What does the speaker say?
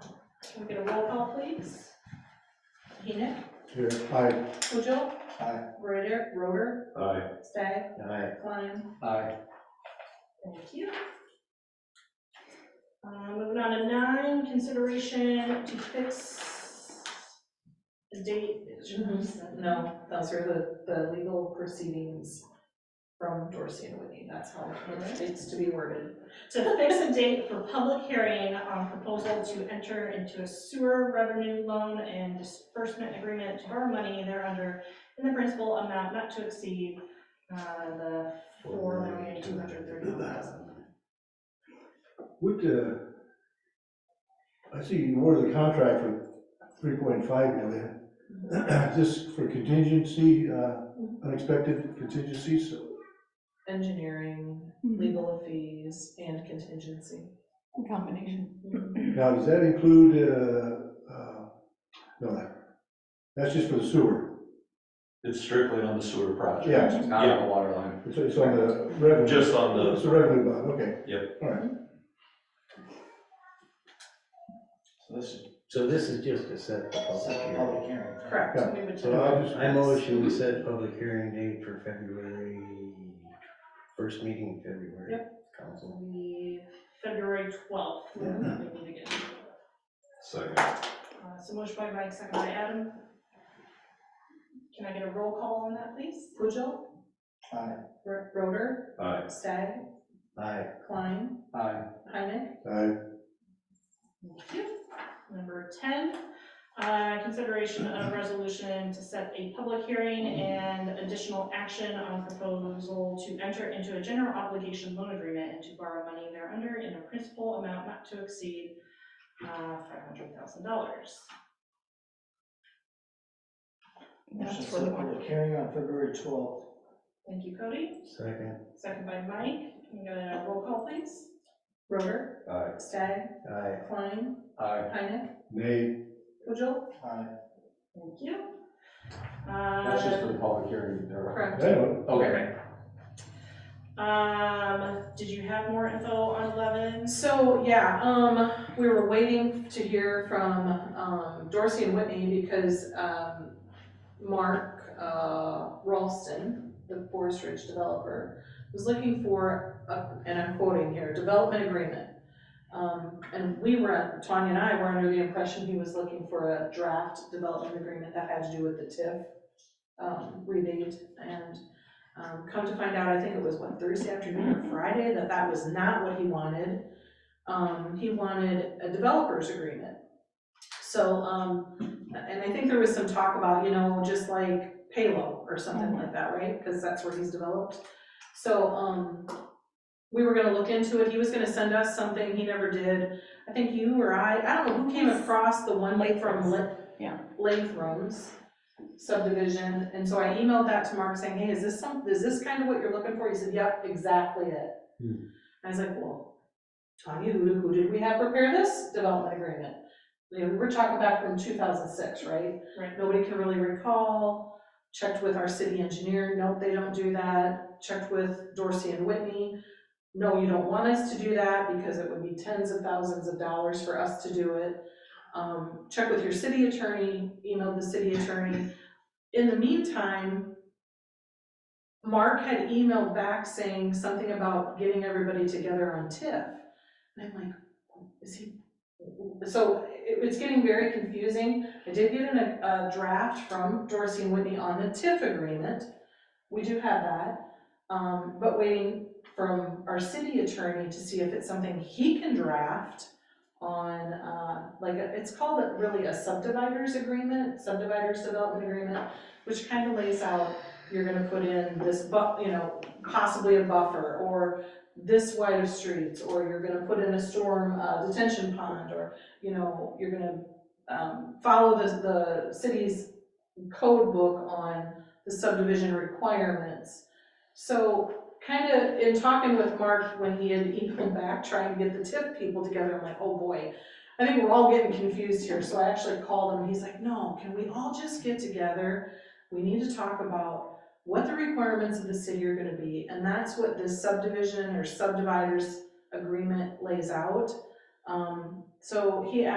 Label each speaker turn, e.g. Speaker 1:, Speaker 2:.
Speaker 1: Can we get a roll call, please? Enoch,
Speaker 2: Here, aye.
Speaker 1: Pujo.
Speaker 2: Aye.
Speaker 1: Roder, Roder,
Speaker 3: Aye.
Speaker 1: Stagg,
Speaker 2: Aye.
Speaker 1: Klein.
Speaker 2: Aye.
Speaker 1: Thank you. Um, moving on to nine, consideration to fix the date. Mm-hmm. No, those are the, the legal proceedings from Dorsey and Whitney, that's how it needs to be worded. To fix a date for public hearing on proposal to enter into a sewer revenue loan and disbursement agreement to borrow money thereunder in the principal amount not to exceed, uh, the four million, two hundred thirty-one thousand.
Speaker 2: Would, uh, I see you ordered the contract for three point five million. Just for contingency, uh,
Speaker 1: Mm-hmm.
Speaker 2: unexpected contingencies, so
Speaker 4: engineering, legal fees, and contingency.
Speaker 5: Combination.
Speaker 2: Now, does that include, uh, uh, no, that- that's just for the sewer.
Speaker 3: It's strictly on the sewer project.
Speaker 2: Yeah,
Speaker 5: It's
Speaker 3: not on
Speaker 6: the water line.
Speaker 2: it's, it's on the revenue.
Speaker 3: Just on the,
Speaker 2: It's the revenue bond, okay.
Speaker 6: So this is
Speaker 7: So this is just to set the public
Speaker 6: second
Speaker 7: hearing.
Speaker 6: public hearing.
Speaker 1: Correct, so we would
Speaker 7: So I
Speaker 1: typically-
Speaker 7: just, I motion we set public hearing date for February, first meeting in February. Council.
Speaker 1: We- February twelfth, we meet again.
Speaker 3: second.
Speaker 1: Uh, So motion by Mike, second by Adam. Can I get a roll call on that, please? Pujo.
Speaker 6: Aye.
Speaker 1: Ro- Roder.
Speaker 3: Aye.
Speaker 1: Stagg.
Speaker 7: Aye.
Speaker 1: Klein.
Speaker 6: Aye.
Speaker 1: Hynek.
Speaker 2: I,
Speaker 1: Thank you. Number ten, uh, consideration of resolution to set a public hearing and additional action on proposal to enter into a general obligation loan agreement and to borrow money thereunder in a principal amount not to exceed uh, five hundred thousand dollars.
Speaker 5: That's
Speaker 6: Motion
Speaker 5: for the
Speaker 6: set
Speaker 5: one.
Speaker 6: public hearing on February twelfth.
Speaker 1: Thank you, Cody.
Speaker 7: Second.
Speaker 1: Second by Mike, can we get a roll call, please? Roder.
Speaker 3: Aye.
Speaker 1: Stagg.
Speaker 7: Aye.
Speaker 1: Klein.
Speaker 3: Aye.
Speaker 1: Hynek.
Speaker 2: nay,
Speaker 1: Pujol.
Speaker 6: Aye.
Speaker 1: Thank you.
Speaker 6: That's just for
Speaker 1: Uh,
Speaker 6: the public hearing, there.
Speaker 2: I
Speaker 1: Correct.
Speaker 2: don't,
Speaker 6: Okay.
Speaker 1: Um, did you have more info on eleven?
Speaker 4: So, yeah, um, we were waiting to hear from, um, Dorsey and Whitney because, um, Mark, uh, Ralston, the Forest Ridge developer, was looking for, a- and I'm quoting here, development agreement. Um, and we were, Tanya and I were under the impression he was looking for a draft development agreement that had to do with the TIF, um, rebate. And, um, come to find out, I think it was, what, Thursday afternoon or Friday, that that was not what he wanted um, he wanted a developers agreement. So, um, and I think there was some talk about, you know, just like Palo or something like that, right? Because that's where he's developed. So, um, we were gonna look into it, he was gonna send us something, he never did. I think you or I, I don't know, who came across the one from Lit?
Speaker 5: Yeah.
Speaker 4: Lathrams subdivision, and so I emailed that to Mark saying, hey, is this some, is this kind of what you're looking for? He said, yep, exactly it.
Speaker 7: Hmm.
Speaker 4: I was like, well, Tanya, who, did- who did we have prepare this development agreement? You know, we were talking back from two thousand six, right?
Speaker 1: Right.
Speaker 4: Nobody can really recall, checked with our city engineer, nope, they don't do that, checked with Dorsey and Whitney. No, you don't want us to do that because it would be tens of thousands of dollars for us to do it. Um, check with your city attorney, email the city attorney. In the meantime, Mark had emailed back saying something about getting everybody together on TIF. And I'm like, is he, so it was getting very confusing. I did get an, a draft from Dorsey and Whitney on the TIF agreement. We do have that, um, but waiting from our city attorney to see if it's something he can draft on, uh, like, it's called a- really a subdividers agreement, subdividers development agreement, which kind of lays out, you're gonna put in this bu, you know, possibly a buffer, or this wide of streets, or you're gonna put in a storm uh, detention pond, or, you know, you're gonna um, follow the, the city's code book on the subdivision requirements. So kind of in talking with Mark when he had emailed back, trying to get the TIP people together, I'm like, oh boy, I think we're all getting confused here, so I actually called him, and he's like, no, can we all just get together? We need to talk about what the requirements of the city are gonna be, and that's what this subdivision or subdividers agreement lays out. Um, so he